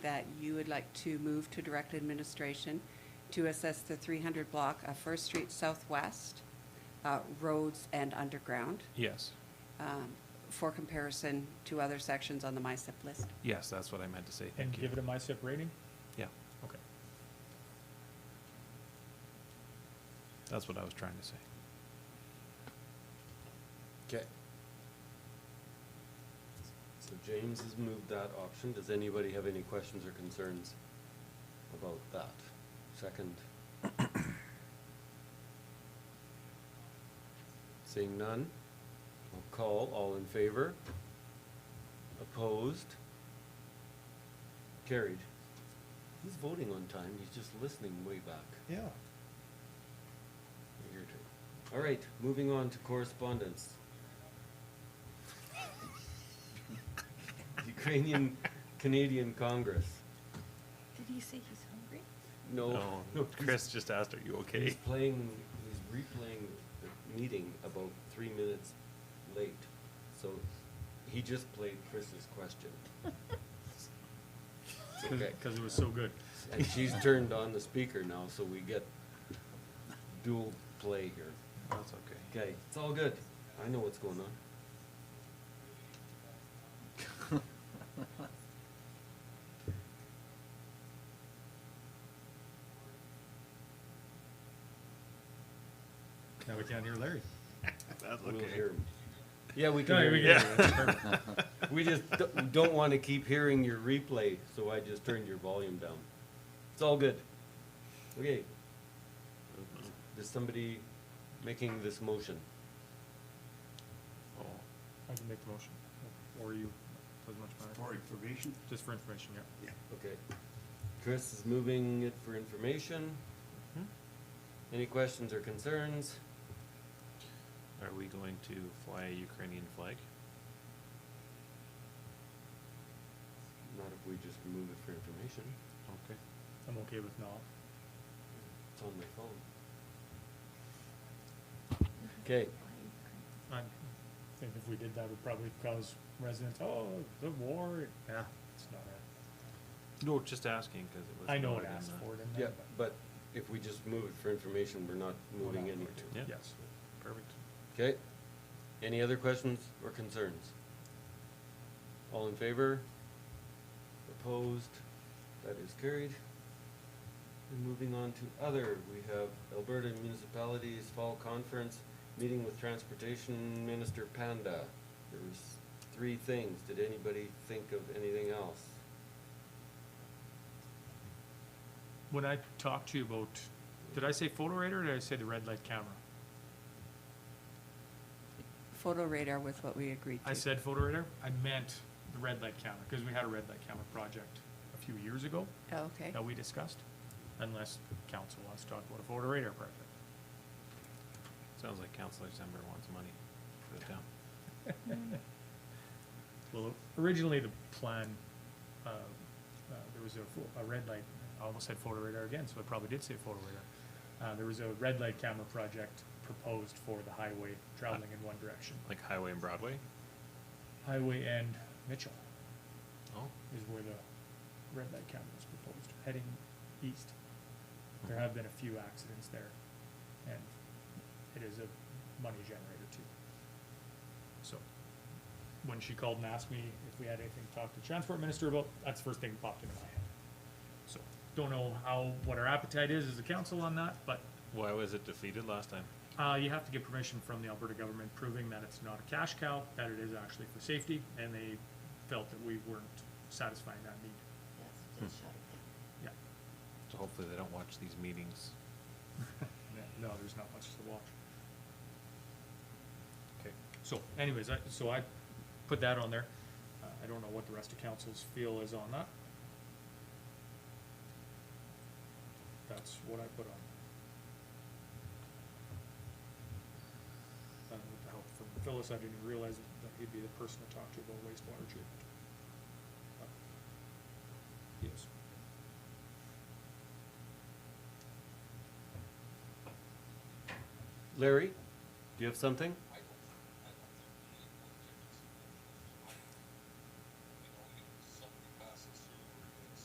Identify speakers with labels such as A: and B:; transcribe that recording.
A: that you would like to move to direct administration to assess the 300 block of First Street Southwest, uh, roads and underground,
B: Yes,
A: um, for comparison to other sections on the MISIP list.
B: yes, that's what I meant to say,
C: And
B: thank you.
C: give it a MISIP rating?
B: Yeah,
C: Okay.
B: that's what I was trying to say.
D: Okay. So James has moved that option. Does anybody have any questions or concerns about that? Second. Seeing none, I'll call. All in favor? Opposed? Carried. He's voting on time. He's just listening way back.
B: Yeah.
D: A year or two. All right, moving on to correspondence. Ukrainian Canadian Congress.
E: Did he say he's hungry?
D: No,
B: No,
D: no,
B: Oh, Chris just asked, are you okay?
D: he's playing, he's replaying the meeting about three minutes late. So he just played Chris's question. It's okay.
C: Because it was so good.
D: And she's turned on the speaker now, so we get dual play here.
B: That's okay.
D: Okay, it's all good. I know what's going on.
C: Now we can't hear Larry.
B: That's
D: We'll
B: okay.
D: hear 'em. Yeah, we can
C: No,
D: hear
C: we
D: you.
C: can
D: We just d- don't want to keep hearing your replay, so I just turned your volume down. It's all good. Okay. Is somebody making this motion?
B: Oh,
C: I can make the motion, or you, doesn't much matter.
F: For information?
C: Just for information, yeah.
F: Yeah.
D: Okay. Chris is moving it for information.
B: mhm.
D: Any questions or concerns?
B: Are we going to fly a Ukrainian flag?
D: Not if we just move it for information.
B: Okay.
C: I'm okay with not.
D: It's on my phone. Okay.
C: I think if we did that, would probably cause residents, oh, the war, nah, it's not a,
B: No, just asking, cause it was.
C: I know it
B: noted in
C: asked
B: the-
C: for it in
D: Yeah,
C: there, but.
D: but if we just move it for information, we're not
C: we're
D: moving
C: not
D: any.
C: going to.
B: Yeah.
C: Yes.
B: Perfect.
D: Okay. Any other questions or concerns? All in favor? Opposed? That is carried. And moving on to other, we have Alberta Municipalities Fall Conference, meeting with Transportation Minister Panda. There was three things. Did anybody think of anything else?
C: When I talked to you about, did I say photo radar, or did I say the red light camera?
A: Photo radar was what we agreed to.
C: I said photo radar, I meant the red light camera, because we had a red light camera project a few years ago.
A: Oh, Okay.
C: that we discussed, unless council wants to talk about a Florida radar project.
B: Sounds like Counselor Zember wants money for the town.
C: Well, originally the plan, uh, uh, there was a, fo- a red light, I almost said photo radar again, so I probably did say photo radar. Uh, there was a red light camera project proposed for the highway traveling in one direction.
B: Like Highway and Broadway?
C: Highway and Mitchell
B: Oh,
C: is where the red light camera was proposed, heading east. There have been a few accidents there, and it is a money generator too. So, when she called and asked me if we had anything to talk to the transport minister about, that's the first thing that popped into my head. So, don't know how, what our appetite is as a council on that, but,
B: why was it defeated last time?
C: uh, you have to get permission from the Alberta government proving that it's not a cash cow, that it is actually for safety, and they felt that we weren't satisfying that need.
E: Yes, just shut it down.
C: Yeah.
B: So hopefully they don't watch these meetings.
C: No, there's not much to watch.
B: Okay.
C: So anyways, I, so I put that on there. Uh, I don't know what the rest of council's feel is on that. That's what I put on. Uh, with the help from Phyllis, I didn't realize that he'd be the person to talk to about wastewater treatment. Uh, But He is.
D: Larry, do you have something?